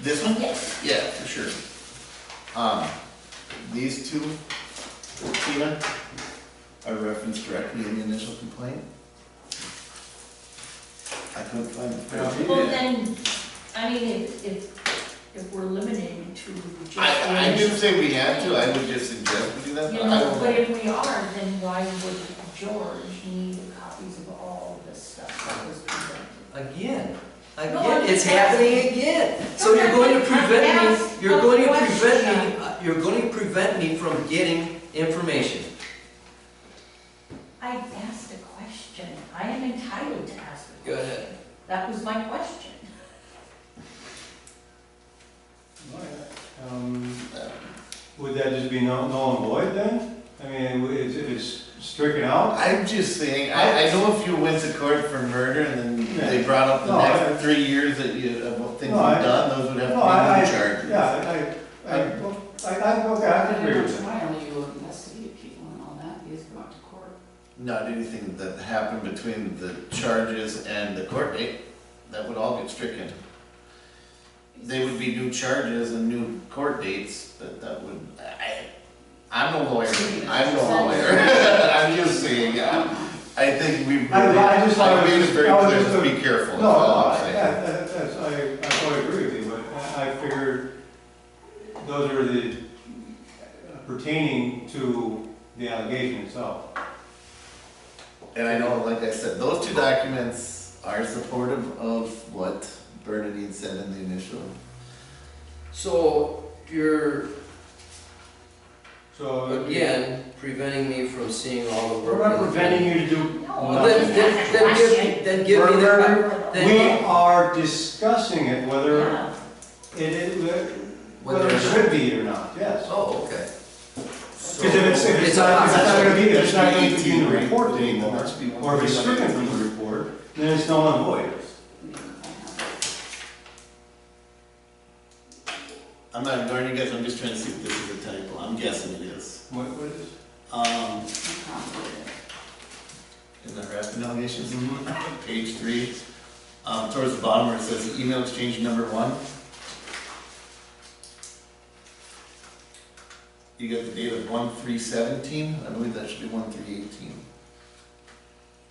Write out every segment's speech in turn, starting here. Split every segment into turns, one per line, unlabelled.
This one?
Yes.
Yeah, for sure. Um, these two, Tina, are referenced directly in the initial complaint. I couldn't find it.
Well, then, I mean, if, if, if we're limited to just.
I, I didn't say we had to, I would just suggest we do that,
You
but I
know,
don't
but
know.
if we are, then why would George need copies of all this stuff that was presented?
Again,
No, I'm
again, it's
just asking.
happening again. So you're going to prevent me, you're
I'm
going to
asking a
prevent me, uh, you're going to prevent me from getting information.
I asked a question. I am entitled to ask a question.
Go ahead.
That was my question.
Um, Would that just be null null and void then? I mean, w- it's- if it's stricken out?
I'm just saying, I, I know if you went to court for murder and then they
Yeah.
brought up the
No,
next
I-
three years that you, of what things you've
No, I-
done, those would have
No, I-
to be
I-
new charges.
Yeah, I, I, I, well, I, I, okay, I can agree with that.
Trial, you investigate people and all that, you just go out to court.
not anything that happened between the charges and the court date, that would all get stricken. They would be new charges and new court dates, but that would, I, I'm no lawyer, I'm no lawyer. I'm just saying, yeah, I think we really,
I- I just- I
I made it
was-
very
I was
clear,
just-
just be careful, that's
No, no,
all I'm
I,
saying.
that- that- that's, I, I totally agree with you, but I, I figured those are the uh, pertaining to the allegation itself.
And I know, like I said, those two documents are supportive of what Bernadine said in the initial.
So you're,
So. it would be-
again, preventing me from seeing all the work.
We're not preventing you to do.
No.
Well, Then, then, then give, me- then give me the, Then-
We are discussing it whether
Yeah.
it, it,
Whether
whether
or
it
not.
should be or not, yes.
oh, okay. So-
Because if it's, if it's not, if it's not gonna be, there, it's not gonna be in the report anymore,
Let's be-
or if it's stricken from the report, then it's null and void.
I mean, I have-
I'm not ignoring you guys, I'm just trying to see if this is a typo, I'm guessing it is.
What, what is?
Um,
I can't do
in the harassment allegations, page three, um, towards the bottom where it says email exchange number one. You got the date of one three seventeen, I believe that should be one three eighteen.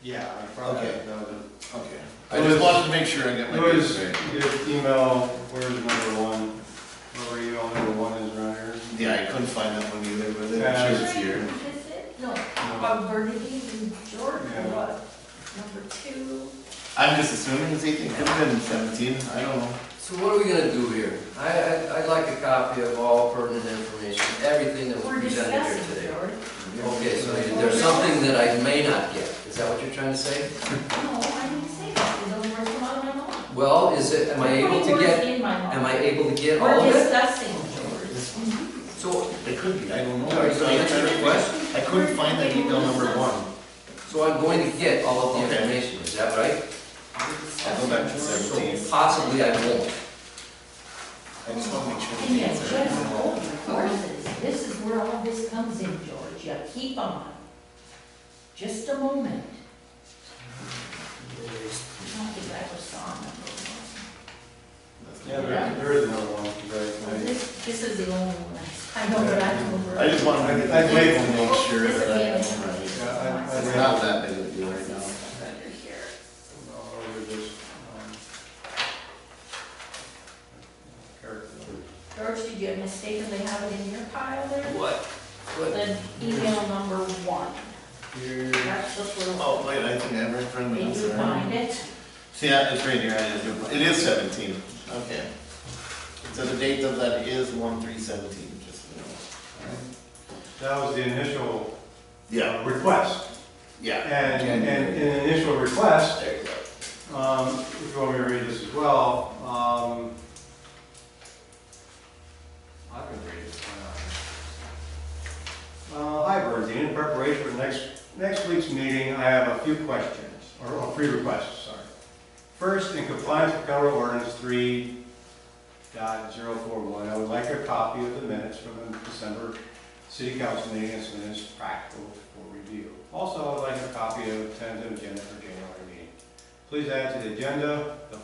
Yeah, I
Okay.
that was
Okay.
It
I just
was-
wanted to make sure I got
it.
my
What
dates
is
right.
your email, where's number one? Where email number one is around here?
Yeah, I couldn't find that one either, but I'm sure it's here.
Is it? No,
No.
about Bernadine and George,
Yeah.
what? Number two.
I'm just assuming it's eighteen, could have been seventeen, I don't know.
So what are we gonna do here? I, I, I'd like a copy of all pertinent information, everything that
We're
was presented here
discussing,
today.
George.
Okay, so there's something that I may not get, is that what you're trying to
No,
say?
I didn't say that. Those words come out of my mouth.
Well, is it, am I able to get, am I able to get all
We're
of it?
discussing, George.
This one,
So,
it could be, I don't know.
Sorry, so that's
I
your
couldn't find that email number one.
so I'm going to get all of the
Okay.
information, is that right?
I'll go back to seventeen.
So possibly I won't.
I just want to make sure.
And
the
yet,
dates
just
are-
hold your horses. This is where all this comes in, George. You keep on. Just a moment. I don't think I ever saw number one.
Yeah, there, there is another one,
Well,
right,
This, this is the only one. I know that I can remember.
I just want to make
I- I wait.
to make sure
This is
that I
the
have them
only one.
right.
Yeah, I- I-
It's not that big of a deal right now.
Under here.
No, or we just, um, character.
George, did you mistakenly have it in your pile there?
What? What?
Then email number one.
Here.
That's the little.
Oh, wait, I think I have it in front of me.
Did
I'm
you
sorry.
find it?
See, yeah, it's right here, I just, it is seventeen, okay. So the date of that is one three seventeen, just, so
That was the initial
you know.
uh, request.
Yeah,
And, and and the initial request, um, if you want me to read this as well, um. I can read it. why not? Uh, hi, Bernadine, in preparation for next, next week's meeting, I have a few questions, or, or three requests, sorry. First, in compliance with Colorado Ordinance three dot zero four one, I would like a copy of the minutes from the December city council meeting as soon as practical for review. Also, I would like a copy of the tentative agenda for January meeting. Please add to the agenda the